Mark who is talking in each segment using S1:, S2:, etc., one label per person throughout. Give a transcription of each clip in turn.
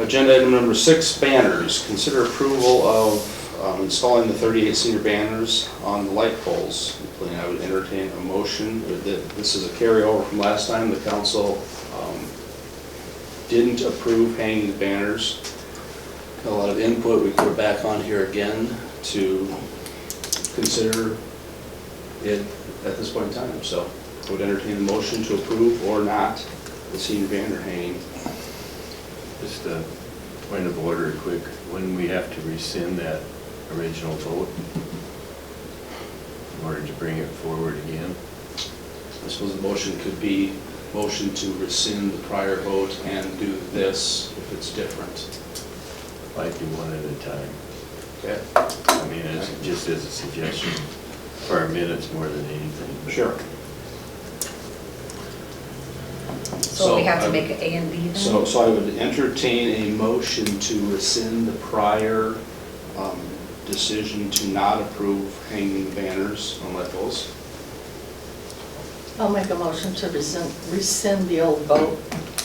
S1: Agenda item number six, banners. Consider approval of um, installing the 38 senior banners on the light poles. And I would entertain a motion that this is a carryover from last time. The council um, didn't approve hanging the banners. A lot of input. We put it back on here again to consider it at this point in time. So I would entertain a motion to approve or not the senior banner hanging.
S2: Just a point of order, quick, when we have to rescind that original vote in order to bring it forward again,
S1: I suppose the motion could be, motion to rescind the prior vote and do this if it's different.
S2: might be one at a time.
S1: Okay?
S2: I mean, it's just as a suggestion for our minutes more than anything.
S1: Sure.
S3: So we have
S1: I-
S3: to make it A and B then?
S1: So, so I would entertain a motion to rescind the prior um, decision to not approve hanging banners on light poles.
S4: I'll make a motion to rescind, rescind the old vote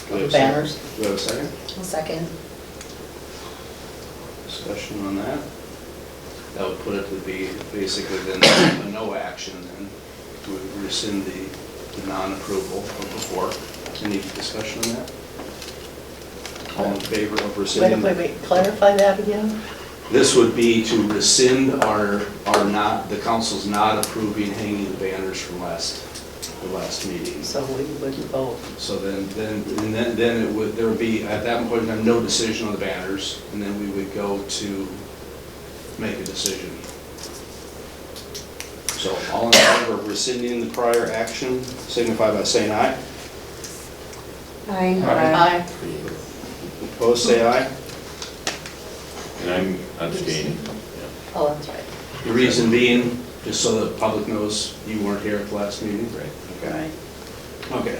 S1: Do I have a second?
S4: of banners.
S1: Do I have a second?
S3: I'll Second.
S1: Discussion on that? That would put it to be basically then a no action then. We would rescind the the non-approval from before. Any discussion on that? All in favor of
S4: Wait,
S1: rescinding?
S4: wait, wait, clarify that again?
S1: This would be to rescind our, our not, the council's not approving hanging the banners from last, the last meeting.
S4: So we wouldn't vote.
S1: So then, then, and then, then it would, there would be, at that point, in time, no decision on the banners, and then we would go to make a decision. So all in favor of rescinding the prior action, signify by saying aye.
S3: Aye.
S4: Aye.
S1: Opposed, say aye.
S2: And I'm abstaining. yeah.
S4: Oh, that's right.
S1: The reason being, just so the public knows, you weren't here at the last meeting.
S2: Right.
S1: Okay. Okay.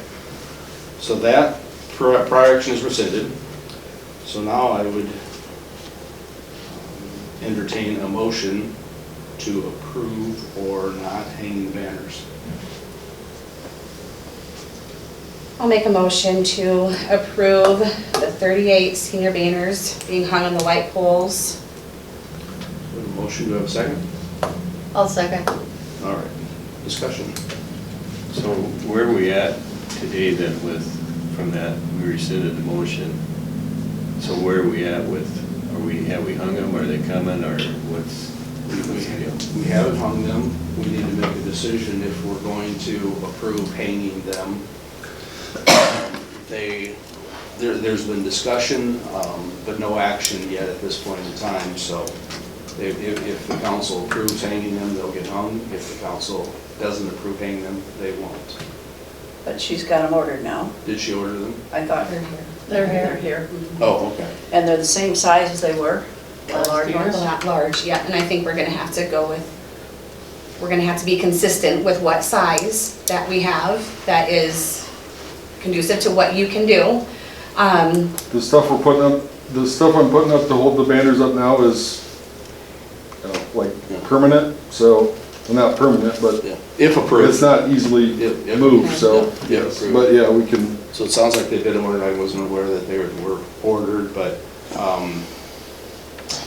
S1: So that pri- prior action is rescinded. So now I would um, entertain a motion to approve or not hang the banners.
S5: I'll make a motion to approve the 38 senior banners being hung on the light poles.
S1: We have a Motion, do I have a second?
S4: I'll second.
S1: All right, discussion.
S2: So where are we at today then with, from that, we rescinded the motion? So where are we at with, are we, have we hung them, are they coming, or what's?
S1: We
S2: what's the deal?
S1: we haven't hung them. We need to make a decision if we're going to approve hanging them. They, there, there's been discussion, um, but no action yet at this point in time, so if, if if the council approves hanging them, they'll get hung. If the council doesn't approve hanging them, they won't.
S6: But she's got them ordered now.
S1: Did she order them?
S6: I thought,
S3: They're here.
S4: They're here, here.
S1: Oh, okay.
S6: and they're the same size as they were?
S4: The large
S5: They're
S4: ones?
S5: Not large, yeah, and I think we're gonna have to go with, we're gonna have to be consistent with what size that we have that is conducive to what you can do. Um,
S7: The stuff we're putting up, the stuff I'm putting up to hold the banners up now is, you know, like permanent, so, well, not permanent, but
S1: Yeah. If
S7: it's
S1: approved.
S7: not easily
S1: If- if-
S7: moved, so.
S1: Yeah, approved.
S7: But yeah, we can,
S1: So it sounds like they've been ordered, I wasn't aware that they were ordered, but, um,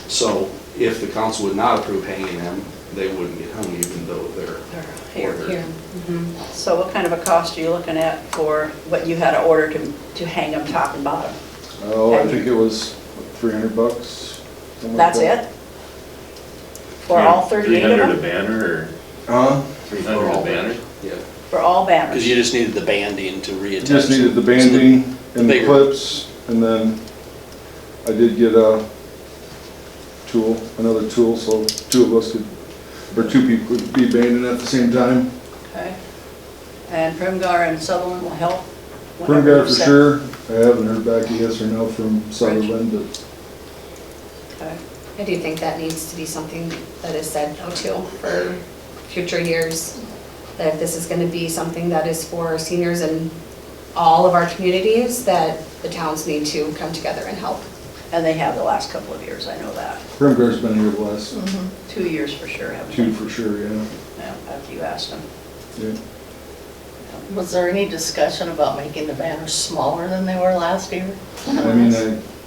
S1: so if the council would not approve hanging them, they wouldn't get hung even though they're
S6: They're here.
S1: ordered.
S5: here, mhm.
S6: So what kind of a cost are you looking at for what you had to order to, to hang them top and bottom?
S7: oh, I think it was three hundred bucks. something like
S6: That's
S7: that.
S6: it? For all 38
S2: Three
S6: of
S2: hundred a
S6: them?
S2: banner, or
S7: Huh?
S2: three hundred a banner?
S1: Yeah,
S6: For all
S1: because
S6: banners?
S1: you just needed the banding to reattach.
S7: Just needed the
S1: them.
S7: banding and the
S1: bigger.
S7: clips, and then I did get a tool, another tool, so two of us could, or two people could be banding at the same time.
S6: Okay. And Primgar and Sutherland will help?
S7: Prune
S6: whenever
S7: guy
S6: you
S7: for
S6: set-
S7: sure. I haven't heard back a yes or no from Sutherland, but
S6: Okay.
S5: I do think that needs to be something that is said though too for future years. That if this is gonna be something that is for our seniors in all of our communities, that the towns need to come together and help.
S6: And they have the last couple of years, I know that.
S7: Prune guy's been here the last
S6: Two years for sure, haven't
S7: two
S6: they?
S7: for sure, yeah.
S6: Yeah, After you asked them.
S7: Yeah.
S4: Was there any discussion about making the banners smaller than they were last year?
S7: I mean, I